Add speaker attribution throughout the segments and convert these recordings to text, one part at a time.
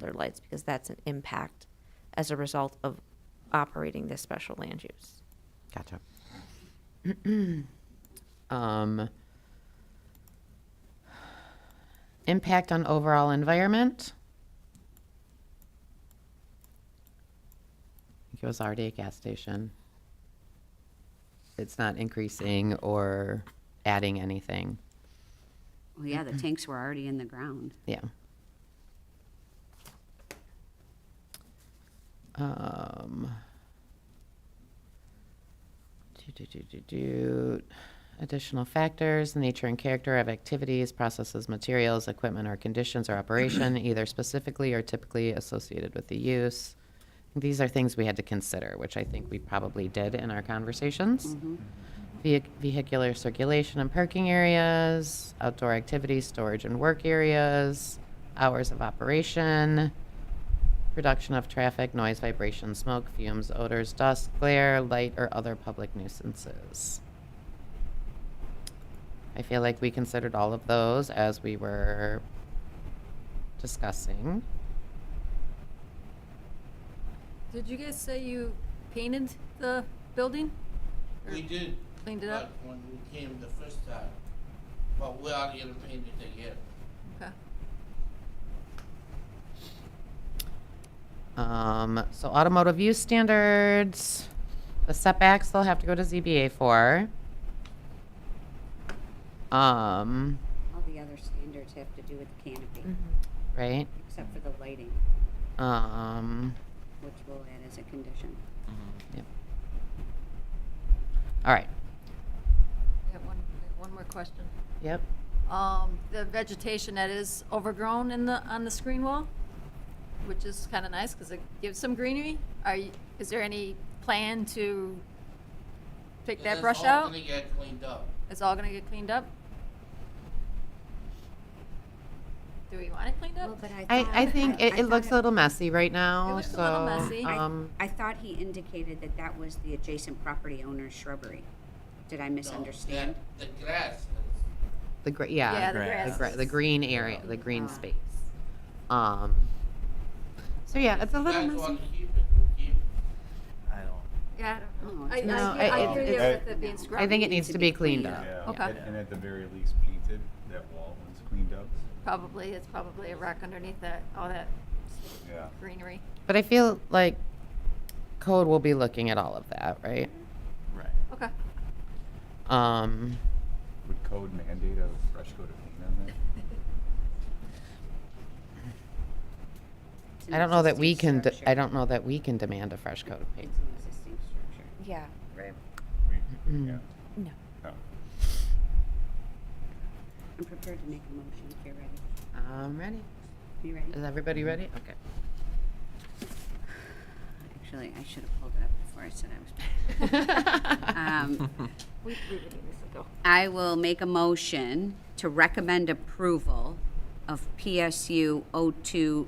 Speaker 1: their lights because that's an impact as a result of operating this special land use.
Speaker 2: Gotcha. um, impact on overall environment. I think it was already a gas station. It's not increasing or adding anything.
Speaker 3: Well, yeah, the tanks were already in the ground.
Speaker 2: Yeah. Um. do, do, do, do, do. Additional factors, the nature and character of activities, processes, materials, equipment, or conditions or operation, either specifically or typically associated with the use. These are things we had to consider, which I think we probably did in our conversations. Vehi- Vehicular circulation and parking areas, outdoor activities, storage and work areas, hours of operation, production of traffic, noise, vibration, smoke, fumes, odors, dust, glare, light, or other public nuisances. I feel like we considered all of those as we were discussing.
Speaker 4: Did you guys say you painted the building? Or
Speaker 5: We did.
Speaker 4: Cleaned it
Speaker 5: but
Speaker 4: up?
Speaker 5: When we came the first time, but we are gonna paint it again.
Speaker 4: Okay.
Speaker 2: Um, so automotive use standards, the setbacks they'll have to go to ZBA for. Um,
Speaker 3: All the other standards have to do with the canopy,
Speaker 2: Mm. right?
Speaker 3: except for the lighting,
Speaker 2: Um,
Speaker 3: which we'll add as a condition.
Speaker 2: yep. All right.
Speaker 4: I have one, I have one more question.
Speaker 2: Yep.
Speaker 4: Um, the vegetation that is overgrown in the, on the screen wall, which is kind of nice because it gives some greenery. Are you, is there any plan to take that
Speaker 5: It's
Speaker 4: brush
Speaker 5: all
Speaker 4: out?
Speaker 5: gonna get cleaned up.
Speaker 4: It's all gonna get cleaned up? Do we want it cleaned up?
Speaker 2: I, I think it,
Speaker 3: I
Speaker 2: it
Speaker 3: thought
Speaker 2: looks a little messy right now,
Speaker 4: looks a
Speaker 2: so,
Speaker 4: little messy.
Speaker 3: I-
Speaker 2: um,
Speaker 3: I thought he indicated that that was the adjacent property owner's shrubbery. Did I
Speaker 5: No,
Speaker 3: misunderstand?
Speaker 5: The the grass
Speaker 2: the, gr- yeah,
Speaker 4: the
Speaker 2: the
Speaker 4: grass. Uh-huh.
Speaker 2: gr- the green area, the green
Speaker 3: Ah.
Speaker 2: space. Um, so yeah, it's a
Speaker 5: is, you
Speaker 2: little
Speaker 5: guys
Speaker 2: messy.
Speaker 5: wanna keep it, we'll keep it.
Speaker 6: I don't.
Speaker 4: Yeah, I don't know. I,
Speaker 3: No,
Speaker 4: I hear-
Speaker 2: I-
Speaker 4: I hear
Speaker 2: it-
Speaker 4: you
Speaker 6: it-
Speaker 4: with it being scrubbed.
Speaker 2: I think it needs to be cleaned up.
Speaker 4: Okay.
Speaker 6: And- And at the very least painted, that wall was cleaned up.
Speaker 4: Probably, it's probably a rock underneath that, all that
Speaker 6: Yeah.
Speaker 4: greenery.
Speaker 2: But I feel like code will be looking at all of that, right?
Speaker 6: Right.
Speaker 4: Okay.
Speaker 2: Um,
Speaker 6: Would code mandate a fresh coat of paint on that?
Speaker 3: It's an
Speaker 2: I don't know that we can,
Speaker 3: existing
Speaker 2: de- I
Speaker 3: structure.
Speaker 2: don't know that we can demand a fresh coat of paint.
Speaker 3: It's an existing structure.
Speaker 1: Yeah.
Speaker 2: Right.
Speaker 6: We- yeah. Oh.
Speaker 1: No.
Speaker 6: No.
Speaker 3: I'm prepared to make a motion if you're ready.
Speaker 2: I'm Um, ready.
Speaker 3: You ready?
Speaker 2: Is everybody ready? Okay.
Speaker 3: Actually, I should have pulled it up before I said I was. Um,
Speaker 4: We, we were doing this ago.
Speaker 3: I will make a motion to recommend approval of PSU 02-25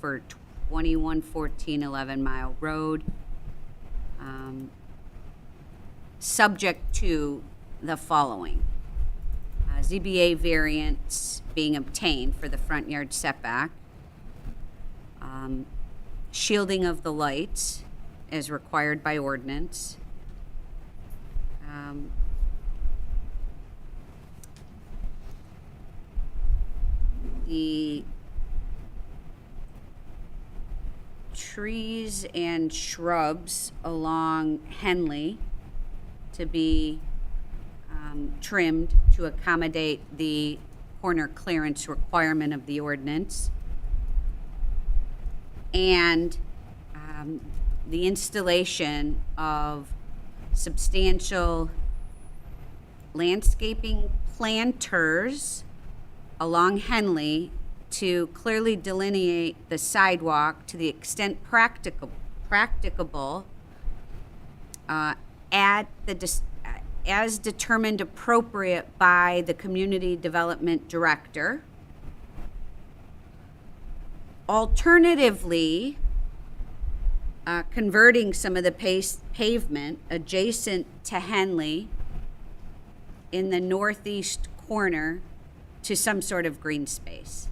Speaker 3: for 2114 11 Mile Road, um, subject to the following. Uh, ZBA variance being obtained for the front yard setback. Um, Shielding of the lights as required by ordinance. Um, The trees and shrubs along Henley to be um, trimmed to accommodate the corner clearance requirement of the ordinance. And um, the installation of substantial landscaping planters along Henley to clearly delineate the sidewalk to the extent practicable, practicable uh, at the, dis- uh, as determined appropriate by the community development director. Alternatively, uh, converting some of the pace, pavement adjacent to Henley in the northeast corner to some sort of green space.